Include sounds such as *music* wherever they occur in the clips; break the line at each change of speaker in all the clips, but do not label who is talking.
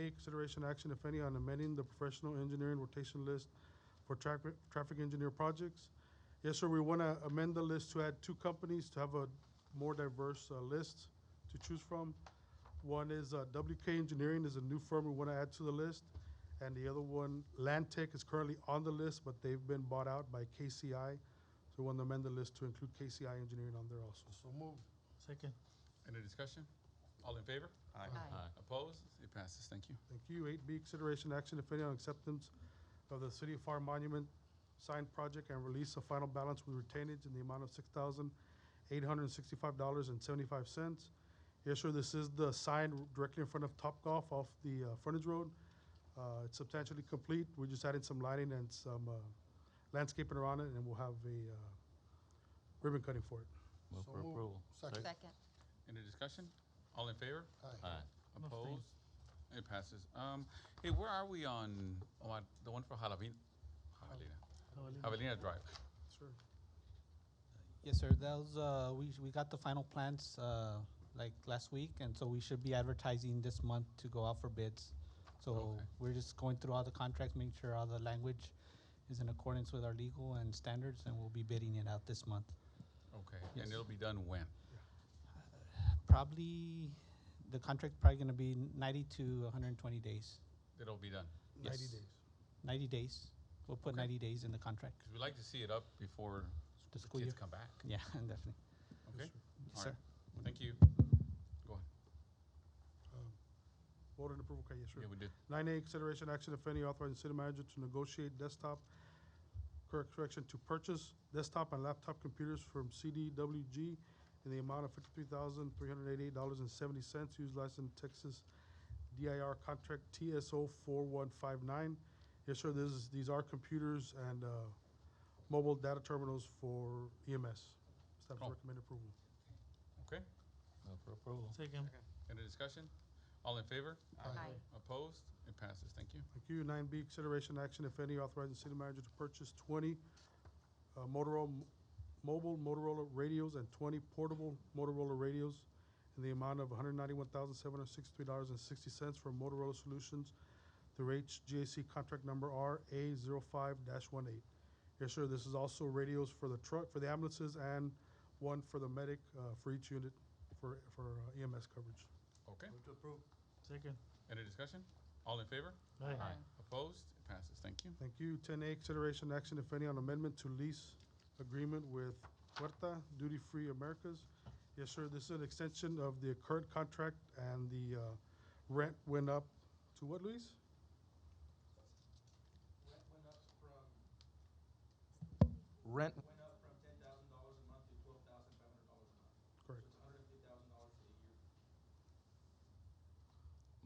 A, consideration action, if any, on amending the professional engineering rotation list for traffic, traffic engineer projects. Yes, sir, we want to amend the list to add two companies to have a more diverse uh, list to choose from. One is uh, WK Engineering is a new firm we want to add to the list. And the other one, Land Tech, is currently on the list, but they've been bought out by KCI. So we want to amend the list to include KCI Engineering on there also.
So move. Second.
Any discussion? All in favor?
Aye.
Opposed? It passes. Thank you.
Thank you. Eight B, consideration action, if any, on acceptance of the City of Far Monument sign project and release of final balance with retainage in the amount of six thousand eight hundred and sixty-five dollars and seventy-five cents. Yes, sir, this is the sign directly in front of Top Golf off the, uh, frontage road. Uh, it's substantially complete. We just added some lighting and some, uh, landscaping around it, and we'll have a, uh, ribbon cutting for it.
Move
So
for
moved.
approval.
Second.
Second.
Any discussion? All in favor?
Aye.
Aye.
Abstain.
Opposed? It passes. Um, hey, where are we on, oh, I- the one for Jalavina? Javelina, Javelina Drive.
Sir,
Yes, sir. Those, uh, we, we got the final plans, uh, like last week, and so we should be advertising this month to go out for bids. So
Okay.
we're just going through all the contracts, making sure all the language is in accordance with our legal and standards, and we'll be bidding it out this month.
Okay,
Yes.
and it'll be done when?
Probably, the contract's probably gonna be ninety to hundred and twenty days,
It'll be done,
ninety
Yes.
days.
ninety days. We'll put
Okay.
ninety days in the contract.
because we like to see it up before
The
the
school
kids
year.
come back.
Yeah, *laughs* definitely.
Okay?
Yes,
All
sir.
right. Thank you.
Um, Vote and approval, okay, yes, sir.
Yeah, we did.
Nine A, consideration action, if any, authorizing city manager to negotiate desktop, correct- correction, to purchase desktop and laptop computers from CDWG in the amount of fifty-three thousand, three hundred eighty-eight dollars and seventy cents, use license Texas DIR contract TSO four one five nine. Yes, sir, this is, these are computers and, uh, mobile data terminals for E EMS. Staff's
Oh.
recommend approval.
Okay,
Move for approval.
Second.
any discussion? All in favor?
Aye.
Opposed? It passes. Thank you.
Thank you. Nine B, consideration action, if any, authorizing city manager to purchase twenty uh, Motorola, mobile Motorola radios and twenty portable Motorola radios in the amount of one hundred ninety-one thousand, seven hundred sixty-three dollars and sixty cents from Motorola Solutions through HGAC contract number R A 5 one eight. Yes, sir, this is also radios for the truck, for the ambulances, and one for the medic, uh, for each unit for, for uh, EMS coverage.
Okay,
Move to approve. Second.
any discussion? All in favor?
Aye.
Opposed? It passes. Thank you.
Thank you. Ten A, consideration action, if any, on amendment to lease agreement with Huerta Duty Free Americas. Yes, sir, this is an extension of the current contract, and the uh, rent went up to what, Luis?
Rent,
Correct.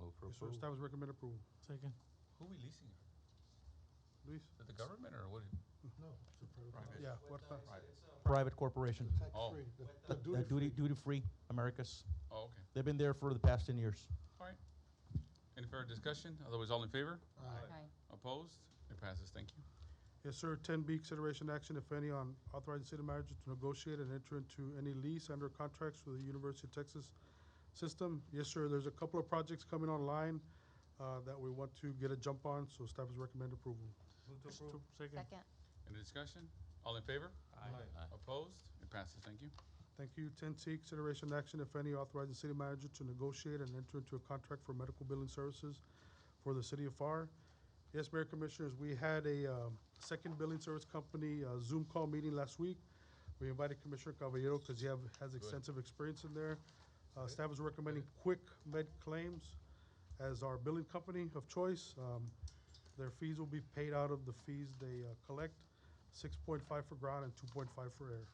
Move for
Yes, sir,
approval.
staff is recommend approval.
Second.
Who are we leasing? it?
Luis?
Is it the government or what?
No. it's a private
Private.
Yeah, Huerta.
private corporation.
company.
Oh.
Tax-free. The- the
The duty,
duty-free.
duty-free Americas.
Oh, okay.
They've been there for the past ten years.
Any further discussion? Otherwise, all in favor?
Aye.
Aye.
Opposed? It passes. Thank you.
Yes, sir. Ten B, consideration action, if any, on authorizing city manager to negotiate and enter into any lease under contracts with the University of Texas system. Yes, sir, there's a couple of projects coming online uh, that we want to get a jump on, so staff is recommend approval.
Move to approve. Second.
Second.
Any discussion? All in favor?
Aye.
Opposed? It passes. Thank you.
Thank you. Ten C, consideration action, if any, authorizing city manager to negotiate and enter into a contract for medical billing services for the city of FAR. Yes, Mayor Commissioners, we had a, um, second billing service company, uh, Zoom call meeting last week. We invited Commissioner Caballero because he have, has extensive experience in there. Uh, staff is recommending Quick Med Claims as our billing company of choice. Um, their fees will be paid out of the fees they, uh, collect, six point five for ground and two point five for air.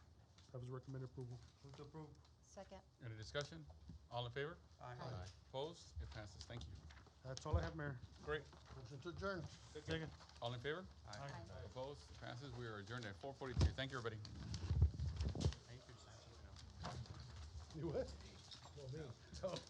Staff is recommending approval.
Move to approve.
Second.
Any discussion? All in favor?
Aye.
Opposed? It passes. Thank you.
That's all I have, Mayor.
Great.
Motion to adjourn. Second.
All in favor?
Aye.
Opposed? It passes. We are adjourned at four forty-three. Thank you, everybody.
You what?